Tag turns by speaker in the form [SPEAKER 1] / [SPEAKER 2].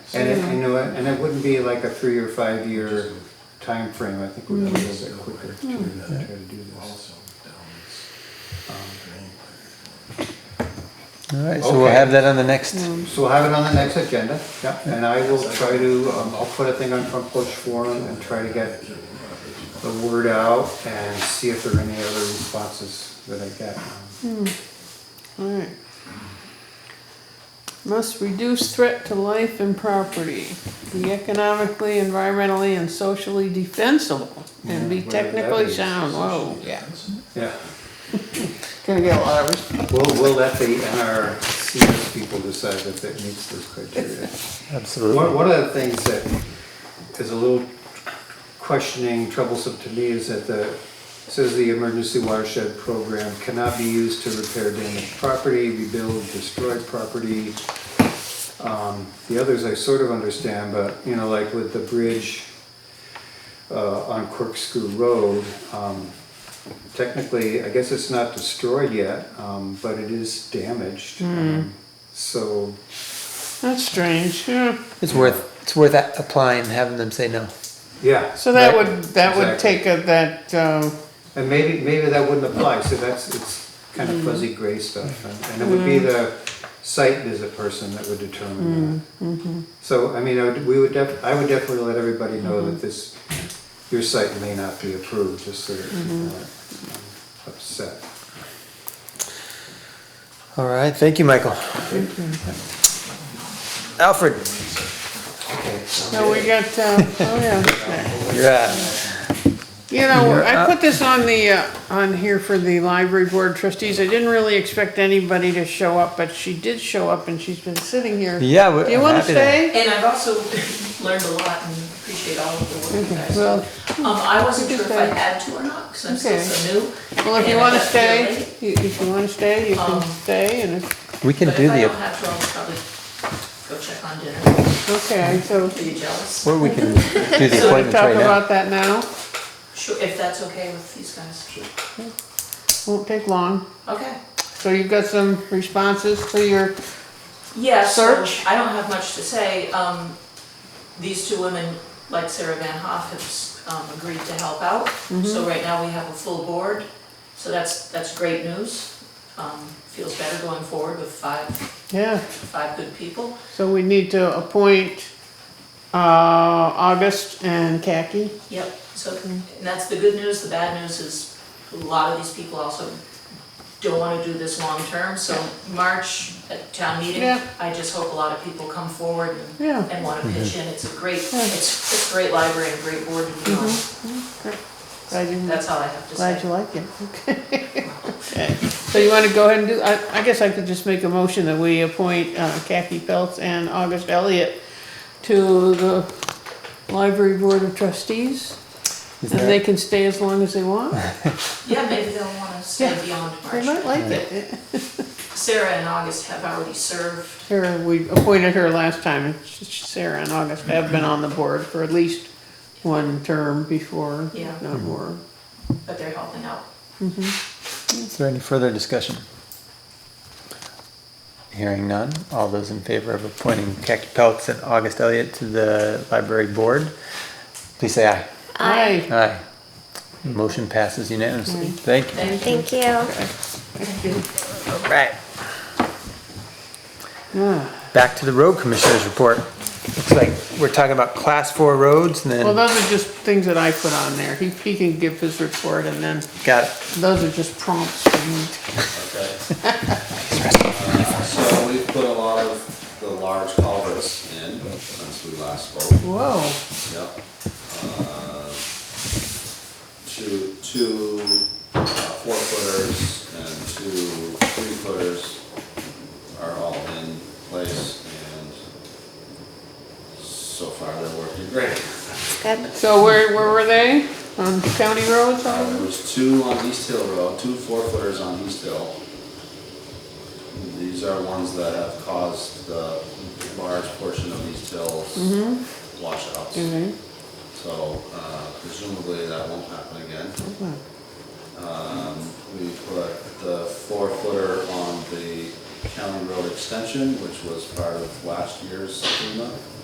[SPEAKER 1] And it, you know, and it wouldn't be like a three or five year time frame. I think we're gonna be a little bit quicker to try to do this.
[SPEAKER 2] Also down
[SPEAKER 3] All right, so we'll have that on the next,
[SPEAKER 4] Um,
[SPEAKER 1] So we'll have it on the next agenda, yeah, and I will try to, um, I'll put a thing on front porch forum and try to get the word out and see if there are any other responses that I get.
[SPEAKER 4] Alright. Must reduce threat to life and property, be economically, environmentally, and socially defensible, and be
[SPEAKER 1] Yeah, whatever that
[SPEAKER 4] technically
[SPEAKER 1] is.
[SPEAKER 4] sound, whoa, yeah.
[SPEAKER 1] Yeah,
[SPEAKER 4] Gonna get a lot of response.
[SPEAKER 1] we'll, we'll let the NRCS people decide if it meets those criteria. One,
[SPEAKER 3] absolutely.
[SPEAKER 1] one of the things that is a little questioning, troublesome to me is that the, says the emergency watershed program cannot be used to repair damaged property, rebuild destroyed property. Um, the others I sort of understand, but, you know, like with the bridge, uh, on Corkscrew Road, um, technically, I guess it's not destroyed yet, um, but it is damaged.
[SPEAKER 4] Hmm.
[SPEAKER 1] Um, So,
[SPEAKER 4] That's strange, yeah.
[SPEAKER 3] It's worth, it's worth a- applying, and having them say no.
[SPEAKER 1] yeah.
[SPEAKER 4] So that
[SPEAKER 1] Right.
[SPEAKER 4] would, that would
[SPEAKER 1] Exactly.
[SPEAKER 4] take a, that, um,
[SPEAKER 1] And maybe, maybe that wouldn't apply, so that's, it's kind of fuzzy gray stuff. and- And it would be the site visit person that would determine that. So, I mean, I would, we would def, I would definitely let everybody know that this, your site may not be approved, just so that people aren't upset.
[SPEAKER 3] All right, thank you, Michael. Alfred,
[SPEAKER 4] no, we got, uh, oh yeah.
[SPEAKER 3] you're uh, up.
[SPEAKER 4] You know,
[SPEAKER 3] You're
[SPEAKER 4] I
[SPEAKER 3] up.
[SPEAKER 4] put this on the, uh, on here for the library board trustees. I didn't really expect anybody to show up, but she did show up and she's been sitting here.
[SPEAKER 3] Yeah, we-
[SPEAKER 4] Do you
[SPEAKER 3] I'm
[SPEAKER 4] wanna
[SPEAKER 3] happy to-
[SPEAKER 4] stay?
[SPEAKER 5] And I've also learned a lot and appreciate all of the work you guys do.
[SPEAKER 4] Well,
[SPEAKER 5] Um, I wasn't sure if I
[SPEAKER 4] Okay.
[SPEAKER 5] had to or not, because I'm still
[SPEAKER 4] Okay.
[SPEAKER 5] so new.
[SPEAKER 4] well, if you
[SPEAKER 5] and I
[SPEAKER 4] wanna
[SPEAKER 5] got
[SPEAKER 4] stay,
[SPEAKER 5] really-
[SPEAKER 4] you- if you wanna stay, you can
[SPEAKER 5] Um,
[SPEAKER 4] stay and if,
[SPEAKER 3] We can
[SPEAKER 5] But
[SPEAKER 3] do
[SPEAKER 5] if I don't
[SPEAKER 3] the,
[SPEAKER 5] have to, I'll probably go check on dinner.
[SPEAKER 4] okay, so.
[SPEAKER 5] Are you jealous?
[SPEAKER 3] or we can do the
[SPEAKER 4] So we
[SPEAKER 3] appointments
[SPEAKER 4] talk
[SPEAKER 3] right now.
[SPEAKER 4] about that now.
[SPEAKER 5] Sure, if that's okay with these guys.
[SPEAKER 4] Won't take long.
[SPEAKER 5] Okay.
[SPEAKER 4] So you've got some responses to your,
[SPEAKER 5] Yeah, so
[SPEAKER 4] Search.
[SPEAKER 5] I don't have much to say. Um, these two women, like Sarah Van Hoff, have s- um, agreed to help out. So right now we have a full board, so that's, that's great news. Um, feels better going forward with five,
[SPEAKER 4] yeah,
[SPEAKER 5] five good people.
[SPEAKER 4] so we need to appoint, uh, August and Khaki.
[SPEAKER 5] Yep, so, and that's the good news. The bad news is a lot of these people also don't wanna do this long-term. So March, at town meeting,
[SPEAKER 4] Yeah.
[SPEAKER 5] I just hope a lot of people come forward and
[SPEAKER 4] Yeah.
[SPEAKER 5] and want to pitch in. It's a great, it's, it's a great library and great board to be on.
[SPEAKER 4] Glad you-
[SPEAKER 5] That's all I have to
[SPEAKER 4] Mm-hmm. Glad you
[SPEAKER 5] say.
[SPEAKER 4] like it. Okay. So you want to go ahead and do, I, I guess I could just make a motion that we appoint uh, Kathy Peltz and August Elliott to the Library Board of Trustees. And they can stay as long as they want.
[SPEAKER 5] Yeah, maybe they'll want to
[SPEAKER 4] Yeah.
[SPEAKER 5] stay beyond
[SPEAKER 4] They might like
[SPEAKER 5] March.
[SPEAKER 4] it.
[SPEAKER 5] Sarah and August have already served.
[SPEAKER 4] Sarah, we appointed her last time. and s- Sarah and August have been on the board for at least one term before,
[SPEAKER 5] Yeah.
[SPEAKER 4] if not more.
[SPEAKER 5] But they're helping out.
[SPEAKER 3] Is there any further discussion? Hearing none, all those in favor of appointing Khaki Peltz and August Elliott to the library board, please say aye.
[SPEAKER 4] Aye.
[SPEAKER 3] Aye. Motion passes unanimously. Thank you.
[SPEAKER 5] Thank you.
[SPEAKER 6] Thank you.
[SPEAKER 3] All right. Back to the road commissioners report. Looks like we're talking about class four roads and
[SPEAKER 4] Well,
[SPEAKER 3] then,
[SPEAKER 4] those are just things that I put on there. He, he can give his report and then
[SPEAKER 3] got it.
[SPEAKER 4] Those are just prompts for me.
[SPEAKER 7] Okay. So we've put a lot of the large culverts in since we last spoke,
[SPEAKER 4] Whoa,
[SPEAKER 7] yep. Uh, Two, two uh, four footers and two three footers are all in place and so far they're working great.
[SPEAKER 6] Good.
[SPEAKER 4] so where, where were they? On county roads, all
[SPEAKER 7] Uh,
[SPEAKER 4] of
[SPEAKER 7] There
[SPEAKER 4] them?
[SPEAKER 7] was two on East Hill Road, two four-footers on East Hill. These are ones that have caused the large portion of East Hill's washouts.
[SPEAKER 4] Mhm.
[SPEAKER 7] So uh, presumably that won't happen again. Um, We put the four-footer on the County Road Extension, which was part of last year's FEMA